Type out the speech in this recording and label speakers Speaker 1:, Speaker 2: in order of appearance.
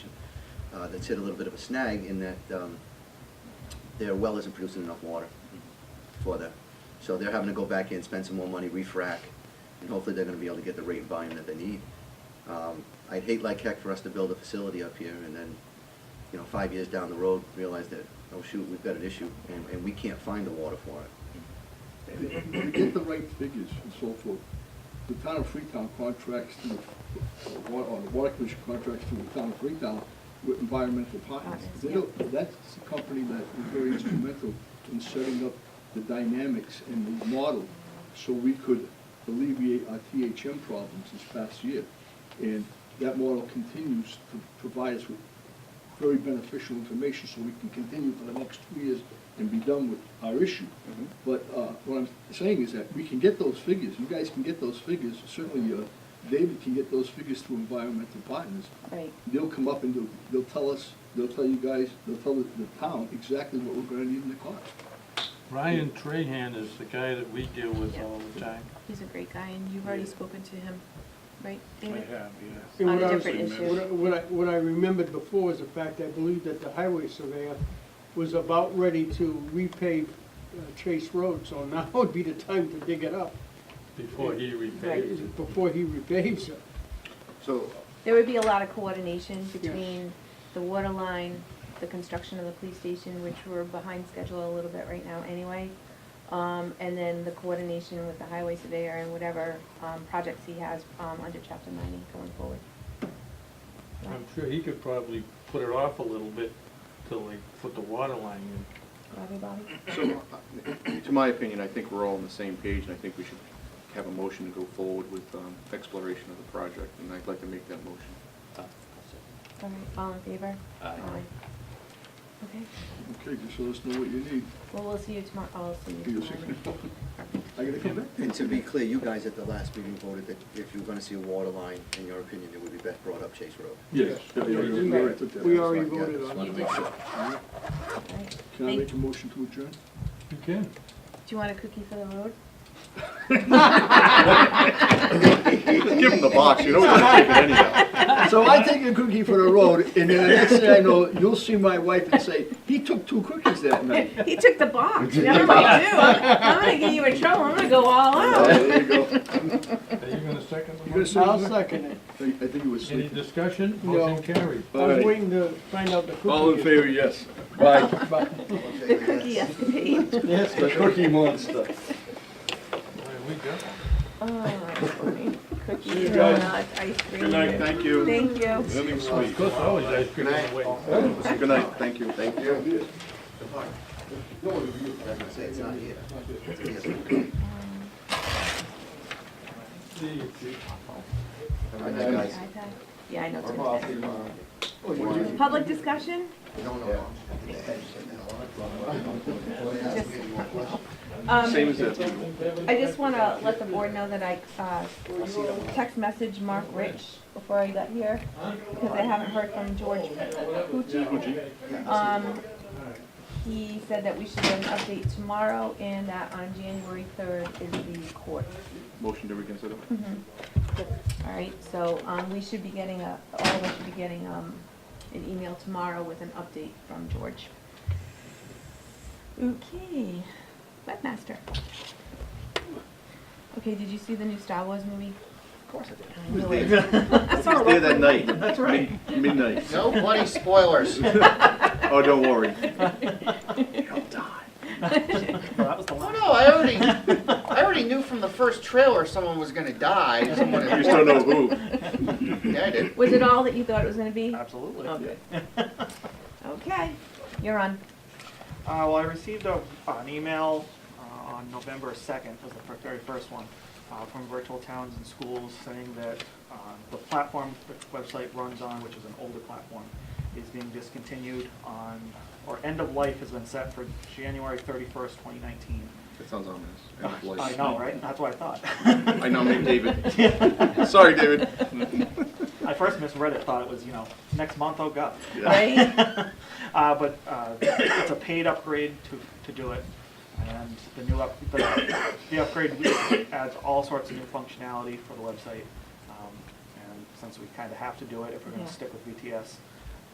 Speaker 1: uh, that's hit a little bit of a snag in that um, their well isn't producing enough water for that. So they're having to go back in, spend some more money, refrac, and hopefully they're gonna be able to get the rate and volume that they need. Um, I'd hate like heck for us to build a facility up here and then, you know, five years down the road, realize that, oh shoot, we've got an issue, and, and we can't find the water for it.
Speaker 2: To get the right figures and so forth, the town of Freetown contracts to, or or the water commission contracts to the town of Freetown with environmental partners.
Speaker 3: Partners,
Speaker 2: They
Speaker 3: yeah.
Speaker 2: don't- That's a company that was very instrumental in setting up the dynamics and the model so we could alleviate our THM problems this past year. And that model continues to provide us with very beneficial information so we can continue for the next two years and be done with our issue. But uh, what I'm saying is that we can get those figures, you guys can get those figures, certainly uh, David can get those figures through environmental partners.
Speaker 3: Right.
Speaker 2: They'll come up and they'll, they'll tell us, they'll tell you guys, they'll tell the the town exactly what we're gonna need in the cost.
Speaker 4: Ryan Trahan is the guy that we deal with
Speaker 3: Yeah.
Speaker 4: all the time.
Speaker 3: He's a great guy, and you've already
Speaker 4: Yeah.
Speaker 3: spoken to him, right,
Speaker 4: I
Speaker 3: David?
Speaker 4: have,
Speaker 5: And
Speaker 3: On
Speaker 5: what
Speaker 3: a
Speaker 5: I was-
Speaker 3: different issue.
Speaker 5: What I, what I, what I remembered before was the fact, I believe that the highway surveyor was about ready to repave uh, Chase Road, so now would be the time to dig it up.
Speaker 4: before he repays it.
Speaker 5: Before he repaves it.
Speaker 1: So,
Speaker 3: There would be a lot of coordination between the water line, the construction of the police station, which we're behind schedule a little bit right now anyway. Um, and then the coordination with the highway surveyor and whatever, um, projects he has, um, under chapter ninety going forward.
Speaker 4: I'm sure he could probably put it off a little bit till they put the water line in.
Speaker 3: Bobby, Bobby?
Speaker 6: So, uh, to my opinion, I think we're all on the same page, and I think we should have a motion to go forward with um, exploration of the project, and I'd like to make that motion.
Speaker 3: All right, all in favor?
Speaker 7: Aye.
Speaker 3: Okay,
Speaker 2: Okay, just let us know what you need.
Speaker 3: well, we'll see you tomorrow, I'll see
Speaker 2: Give
Speaker 3: you
Speaker 2: us a
Speaker 3: tomorrow.
Speaker 2: second. I gotta come back?
Speaker 1: and to be clear, you guys at the last meeting voted that if you were gonna see a water line, in your opinion, it would be best brought up Chase Road.
Speaker 2: Yes. yeah, yeah, yeah, we already took that.
Speaker 5: We already
Speaker 1: Yeah,
Speaker 5: voted
Speaker 1: just
Speaker 5: on
Speaker 1: wanted
Speaker 5: it.
Speaker 1: to make sure.
Speaker 2: All right.
Speaker 3: All right.
Speaker 2: Can I
Speaker 3: Thank-
Speaker 2: make a motion to adjourn?
Speaker 4: You can.
Speaker 3: Do you want a cookie for the road?
Speaker 6: Give him the box, you don't have to give it anyhow.
Speaker 2: So I take a cookie for the road, and then the next thing I know, you'll see my wife and say, he took two cookies that night.
Speaker 3: He took the box, never mind you, I'm I'm gonna get you in trouble, I'm gonna go all
Speaker 2: Oh,
Speaker 3: out.
Speaker 2: There you go.
Speaker 4: Are you gonna second the
Speaker 2: You gonna
Speaker 4: motion?
Speaker 2: second
Speaker 5: I'll second it.
Speaker 2: I think I think you were
Speaker 4: Any
Speaker 2: sleeping.
Speaker 4: discussion?
Speaker 5: No.
Speaker 4: Motion carried.
Speaker 5: I was waiting to find out the cookie.
Speaker 2: favor, yes. Bye.
Speaker 3: The cookie escapade.
Speaker 5: Yes.
Speaker 2: The cookie monster.
Speaker 4: All right, we got one.
Speaker 3: Oh, that's funny.
Speaker 2: you
Speaker 3: Cookies,
Speaker 2: guys.
Speaker 3: donuts, ice cream.
Speaker 6: Good night, thank you.
Speaker 3: Thank you.
Speaker 6: Living
Speaker 4: Of course, always ice cream on the way.
Speaker 6: Good night, thank you. Thank you.
Speaker 1: Like I say, it's not here. It's here.
Speaker 4: See you, Chief.
Speaker 1: All right, guys.
Speaker 3: iPad? Yeah, I know. it's gonna be- Public discussion?
Speaker 1: No, no, no.
Speaker 3: Just-
Speaker 6: Same
Speaker 3: Um,
Speaker 6: as that.
Speaker 3: I just wanna let the board know that I, uh, text messaged Mark Rich before I got here, because I haven't heard from George Pucci. Um, he said that we should get an update tomorrow, and that on January third is the court.
Speaker 6: Motion to reconsider.
Speaker 3: Mm-hmm. All right, so, um, we should be getting a, all of us should be getting, um, an email tomorrow with an update from George. Okay, webmaster. Okay, did you see the new Star Wars movie? Of course I did. I knew it. I saw
Speaker 6: It's
Speaker 3: a
Speaker 6: there
Speaker 3: reference.
Speaker 6: that night. That's right. Midnight.
Speaker 8: No bloody spoilers.
Speaker 6: Oh, don't worry.
Speaker 8: Oh no, I already, I already knew from the first trailer someone was gonna die. Someone
Speaker 6: You just don't know who.
Speaker 8: Yeah, I did.
Speaker 3: Was it all that you thought it was gonna be?
Speaker 7: Absolutely. Uh,
Speaker 3: Okay. Okay, you're on.
Speaker 7: Uh, well, I received a, an email uh, on November 2nd, was the fir- very first one, uh, from Virtual Towns and Schools saying that uh, the platform the website runs on, which is an older platform, is being discontinued on, or end of life has been set for January 31st, 2019.
Speaker 6: That sounds ominous. End of
Speaker 7: I
Speaker 6: life.
Speaker 7: know, right? That's what I thought.
Speaker 6: I nominate David. Sorry, David.
Speaker 7: I first misread it, thought it was, you know, next month, oh god.
Speaker 6: Yeah.
Speaker 3: Right?
Speaker 7: Uh, but uh, it's a paid upgrade to, to do it, and the new up, the, the upgrade adds all sorts of new functionality for the website. Um, and since we kind of have to do it if we're going
Speaker 3: Yeah.
Speaker 7: to stick with VTS,